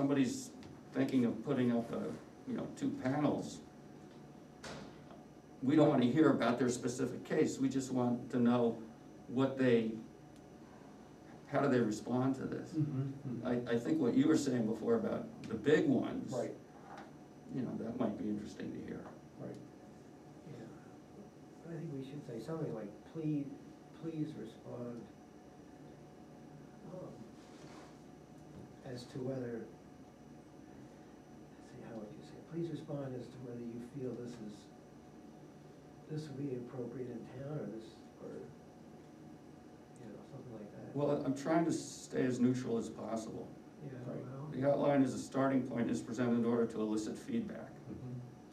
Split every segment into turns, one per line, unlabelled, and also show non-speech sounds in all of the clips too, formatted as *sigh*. somebody's thinking of putting up a, you know, two panels, we don't wanna hear about their specific case, we just want to know what they, how do they respond to this?
Mm-hmm.
Mm-hmm.
I, I think what you were saying before about the big ones.
Right,
You know, that might be interesting to hear.
right.
Yeah, I think we should say something like, please, please respond um, as to whether, let's see, how would you say, it? please respond as to whether you feel this is, this would be appropriate in town or this, or, you know, something like that.
Well, uh, I'm trying to stay as neutral as possible.
Yeah,
Right.
well,
The outline is a starting point, is presented in order to elicit feedback.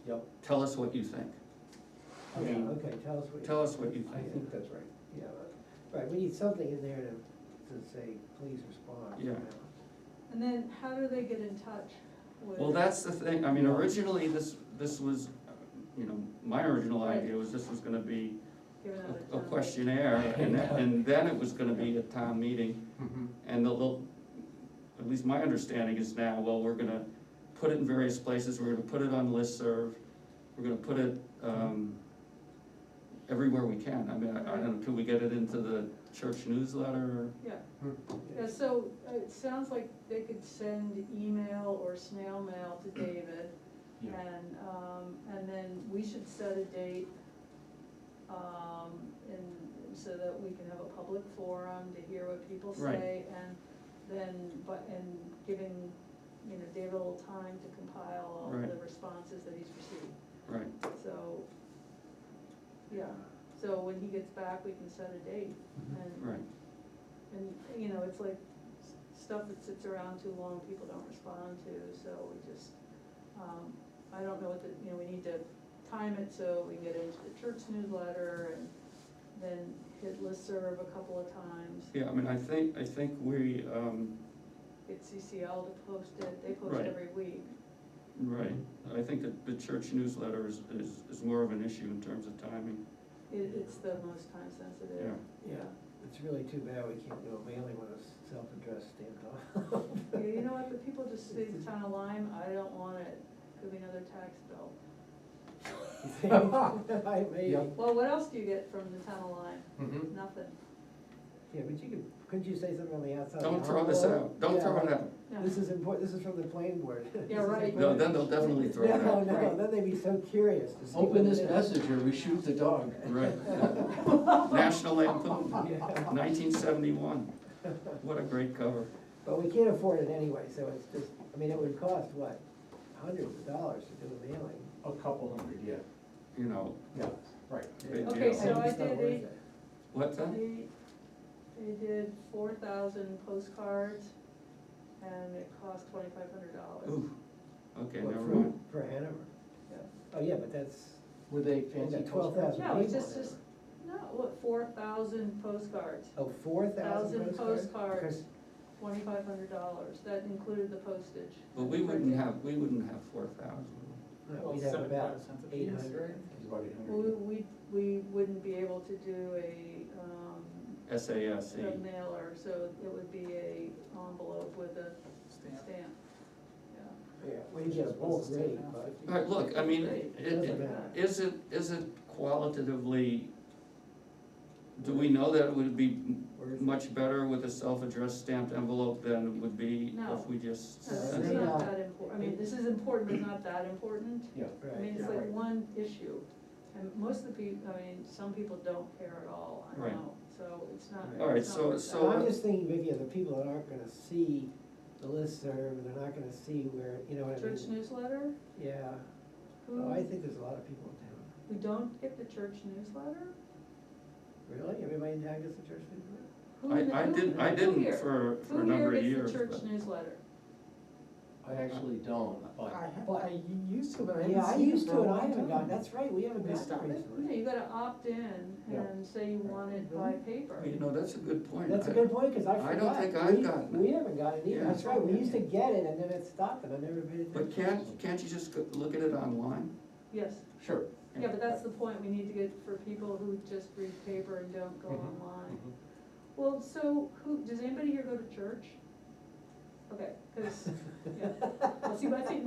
Yep,
Tell us what you think. I
Yeah,
mean,
okay, tell us what you.
tell us what you
I think that's right.
Yeah, right, we need something in there to, to say, please respond.
Yeah.
And then how do they get in touch with?
Well, that's the thing, I mean, originally, this, this was, uh, you know, my original idea was this was gonna be
giving out
a a
town?
questionnaire, and then, and then it was gonna be a town meeting.
Mm-hmm,
And the, little- at least my understanding is now, well, we're gonna put it in various places, we're gonna put it on listserv, we're gonna put it, um, everywhere we can, I mean, I, I don't know, can we get it into the church newsletter?
Yeah, yeah, so uh, it sounds like they could send email or snail mail to David.
Yeah.
And, um, and then we should set a date, um, and so that we can have a public forum to hear what people
Right.
say. And then, but, and giving, you know, David a little time to compile all the
Right.
responses that he's received.
Right,
So, yeah, so when he gets back, we can set a date and,
right,
and, you know, it's like s- stuff that sits around too long, people don't respond to, so we just, um, I don't know what the, you know, we need to time it so we can get into the church newsletter and then hit listserv a couple of times,
yeah, I mean, I think, I think we, um,
get CCL to post it, they post
Right.
every week.
right, I think that the church newsletter is, is, is more of an issue in terms of timing,
It, it's the most time sensitive.
Yeah.
Yeah, it's really too bad we can't do a mailing with a self-addressed stamped envelope.
Yeah, you know what, the people just say the town of Lyme, I don't want it, could be another tax bill.
*laughs* You
*laughs*
think? I may, yeah,
Yep.
Well, what else do you get from the town of Lyme?
Mhm.
Nothing,
but you could, couldn't you say something on the outside? of
don't
the
throw this
envelope?
out, don't throw
Oh, Yeah.
it out,
no.
This is important, this is from the planning board. *laughs* This
Yeah,
is
right.
important.
No, then they'll definitely throw it out.
No, no, then they'd be so curious to see. what
Open
it
this
is.
message or we shoot the dog.
right?
*laughs*
National Lampoon,
Yeah.
nineteen seventy-one, what a great cover.
*laughs* But we can't afford it anyway, so it's just, I mean, it would cost, what, hundreds of dollars to do a mailing.
A couple hundred, yeah.
you know,
Yeah, right.
Big
Okay,
deal.
so I
It's not
did
worth
eight-
it.
what's that?
They, they did four thousand postcards, and it cost twenty-five hundred dollars.
Ooh, okay,
What,
never
for-
mind.
For Hanover. Oh, yeah, but that's,
Were they
Well,
fancy
that twelve
postcards?
thousand people.
No, it's just,
there.
just, no, what, four thousand postcards,
Oh, four thousand
Thousand
postcards?
postcards. twenty-five hundred dollars, that included the postage.
But we wouldn't have, we wouldn't have four thousand.
Because, no, we'd have about eight hundred.
It's about eight
We,
hundred.
we, we wouldn't be able to do a, um,
SASE,
a mailer, so it would be a envelope with a stamp. Yeah.
Yeah, we get a bulk rate, but.
All right, look, I mean, it,
Doesn't
it,
matter.
is it, is it qualitatively, do we know that it would be m-
Worth it.
much better with a self-addressed stamped envelope than it would be
No.
if we just
No, this
sent
is
it?
not that important, I mean, this is important, but not that important.
Yeah.
I mean, it's
Right,
like one issue, and most of the people, I mean, some people don't care at all, I
Right.
know, so it's not.
All
right,
it's not
so-
worth
so- uh,
so
that.
I'm just thinking, Vicky, of the people that aren't gonna see the listserv, they're not gonna see where, you
uh,
know what I mean?
Church newsletter,
Yeah,
who,
oh, I think there's a lot of people in town.
who don't get the church newsletter?
Really? Everybody in town gets a church newsletter?
Who in the-
I, I
who-
didn't, I
who
didn't
here-
for, for a number of years,
Who here gets
but,
the church newsletter?
I actually don't,
I,
but
ha- I used to, but I haven't seen it.
Yeah, I used
for
to
a
and I
long
haven't gotten,
time.
that's right, we haven't
They
gotten
stopped
it
it.
Yeah,
recently.
you gotta opt in
Yeah.
and say you want it by paper.
you know, that's a good point.
That's a
I-
good point, cause I forgot.
I don't think I've
We-
gotten it.
We haven't gotten it either,
Yeah.
that's right, we used to get it and then it stopped and I never paid attention.
But can't, can't you just go- look at it online?
Yes,
sure.
yeah, but that's the point, we need to get for people who just read paper and don't go
Mhm,
Mm-hmm.
online. Well, so who, does anybody here go to church? Okay, cause, yeah, see, but I think